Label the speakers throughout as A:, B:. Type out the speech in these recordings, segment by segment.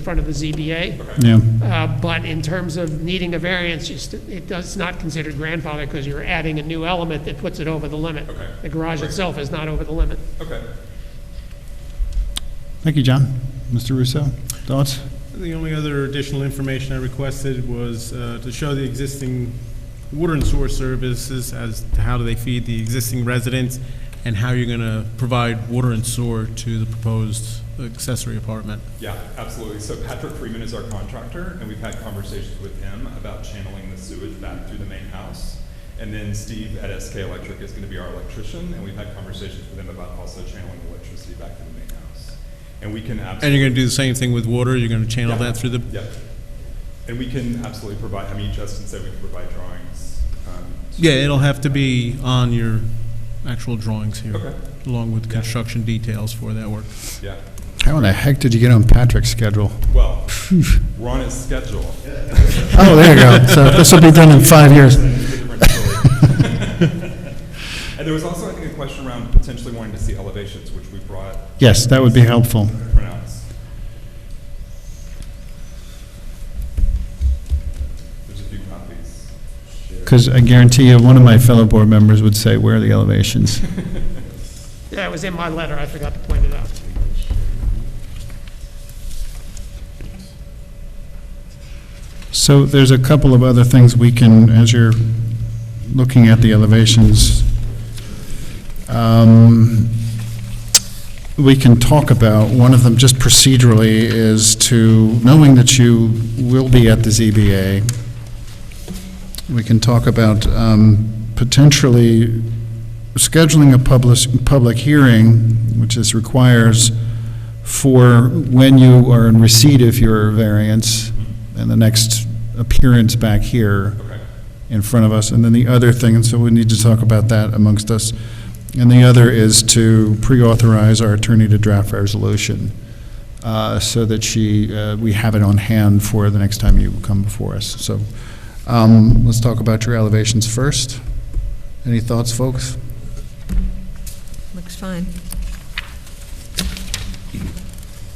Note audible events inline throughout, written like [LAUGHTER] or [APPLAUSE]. A: in front of the ZBA,
B: Yeah,
A: Uh, but in terms of needing a variance, you st- it does not consider grandfather because you're adding a new element that puts it over the limit.
C: Okay.
A: The garage itself is not over the limit.
C: Okay.
B: thank you, John. Mr. Russo, thoughts?
D: The only other additional information I requested was uh, to show the existing water and sewer services as to how do they feed the existing residents and how you're going to provide water and sewer to the proposed accessory apartment.
C: Yeah, absolutely. So Patrick Freeman is our contractor, and we've had conversations with him about channeling the sewage back through the main house. And then Steve at SK Electric is going to be our electrician, and we've had conversations with him about also channeling electricity back to the main house. And we can
D: And
C: absolutely.
D: you're going to do the same thing with water, you're going to channel that through the,
C: Yep. And we can absolutely provide, I mean, Justin said we can provide drawings. um, to-
D: yeah, it'll have to be on your actual drawings here,
C: Okay.
D: along with construction details for that work.
C: Yeah.
B: How in the heck did you get on Patrick's schedule?
C: Well, we're on his schedule.
B: Oh, there you go. So this will be done in five years.
C: And there was also, I think, a question around potentially wanting to see elevations, which we brought
B: Yes, that would be helpful.
C: printouts. There's a few copies.
B: Because I guarantee you, one of my fellow board members would say, where are the elevations?
A: Yeah, it was in my letter, I forgot to point it out.
B: So there's a couple of other things we can, as you're looking at the elevations, um, we can talk about, one of them just procedurally is to, knowing that you will be at the ZBA, we can talk about um, potentially scheduling a public, public hearing, which this requires, for when you are in receipt of your variance and the next appearance back here
C: Okay.
B: in front of us. And then the other thing, and so we need to talk about that amongst us. And the other is to pre-authorize our attorney to draft a resolution uh, so that she, uh, we have it on hand for the next time you come before us. So um, let's talk about your elevations first. Any thoughts, folks?
E: Looks fine.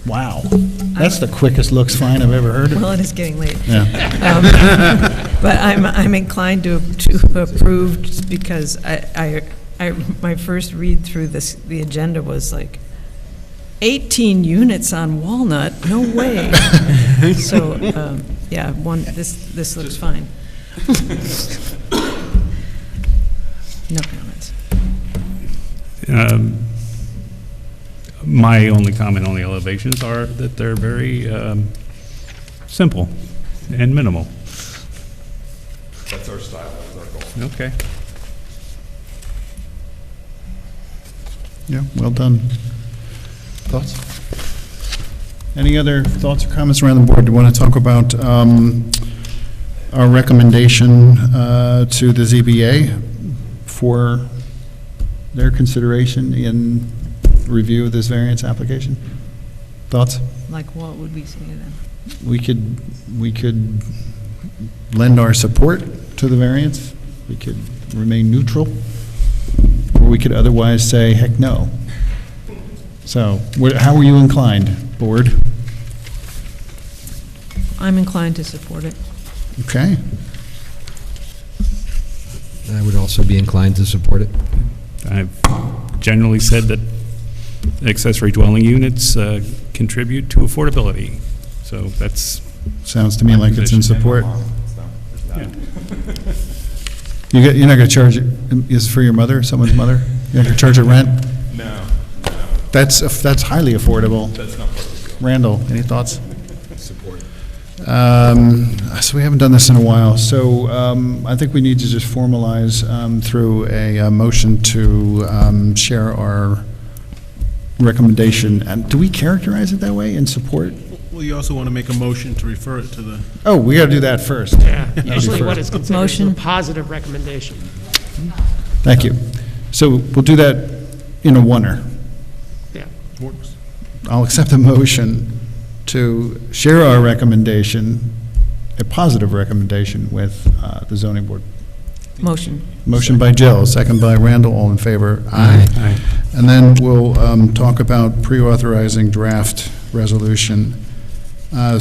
B: Wow. That's the quickest looks fine I've ever heard
E: Well, it is getting late.
B: Yeah.
E: Um, [LAUGHS] But I'm, I'm inclined to, to approve just because I, I, I, my first read through this, the agenda was like, 18 units on Walnut? No way. So, um, yeah, one, this, this looks fine. No comments.
F: Um, My only comment on the elevations are that they're very um, simple and minimal.
C: That's our style, that's our goal.
F: Okay.
B: Yeah, well done. Thoughts? Any other thoughts or comments around the board? Do you want to talk about um, our recommendation uh, to the ZBA for their consideration in review of this variance application? Thoughts?
E: Like, what would we say to them?
B: We could, we could lend our support to the variance, we could remain neutral, or we could otherwise say, heck no. So, wh- how are you inclined, board?
E: I'm inclined to support it.
B: Okay,
G: I would also be inclined to support it.
F: I've generally said that accessory dwelling units uh, contribute to affordability, so that's,
B: sounds to me like it's in support.
C: So,
F: yeah.
B: You get, you're not gonna charge, it- is it for your mother, someone's mother? You're not gonna charge her rent?
C: No,
B: That's, aff- that's highly affordable.
C: that's not part of the deal.
B: Randall, any thoughts? Support. So we haven't done this in a while, so um, I think we need to just formalize um, through a uh, motion to um, share our recommendation. And do we characterize it that way, in support?
D: Well, you also want to make a motion to refer it to the,
B: Oh, we got to do that first.
A: Yeah, usually what is considered is a
E: Motion.
A: positive recommendation.
B: Thank you. So we'll do that in a oneer.
A: Yeah,
B: I'll accept a motion to share our recommendation, a positive recommendation, with uh, the zoning board.
E: Motion.
B: Motion by Jill, second by Randall, all in favor? Aye. And then we'll um, talk about pre-authorizing draft resolution Uh,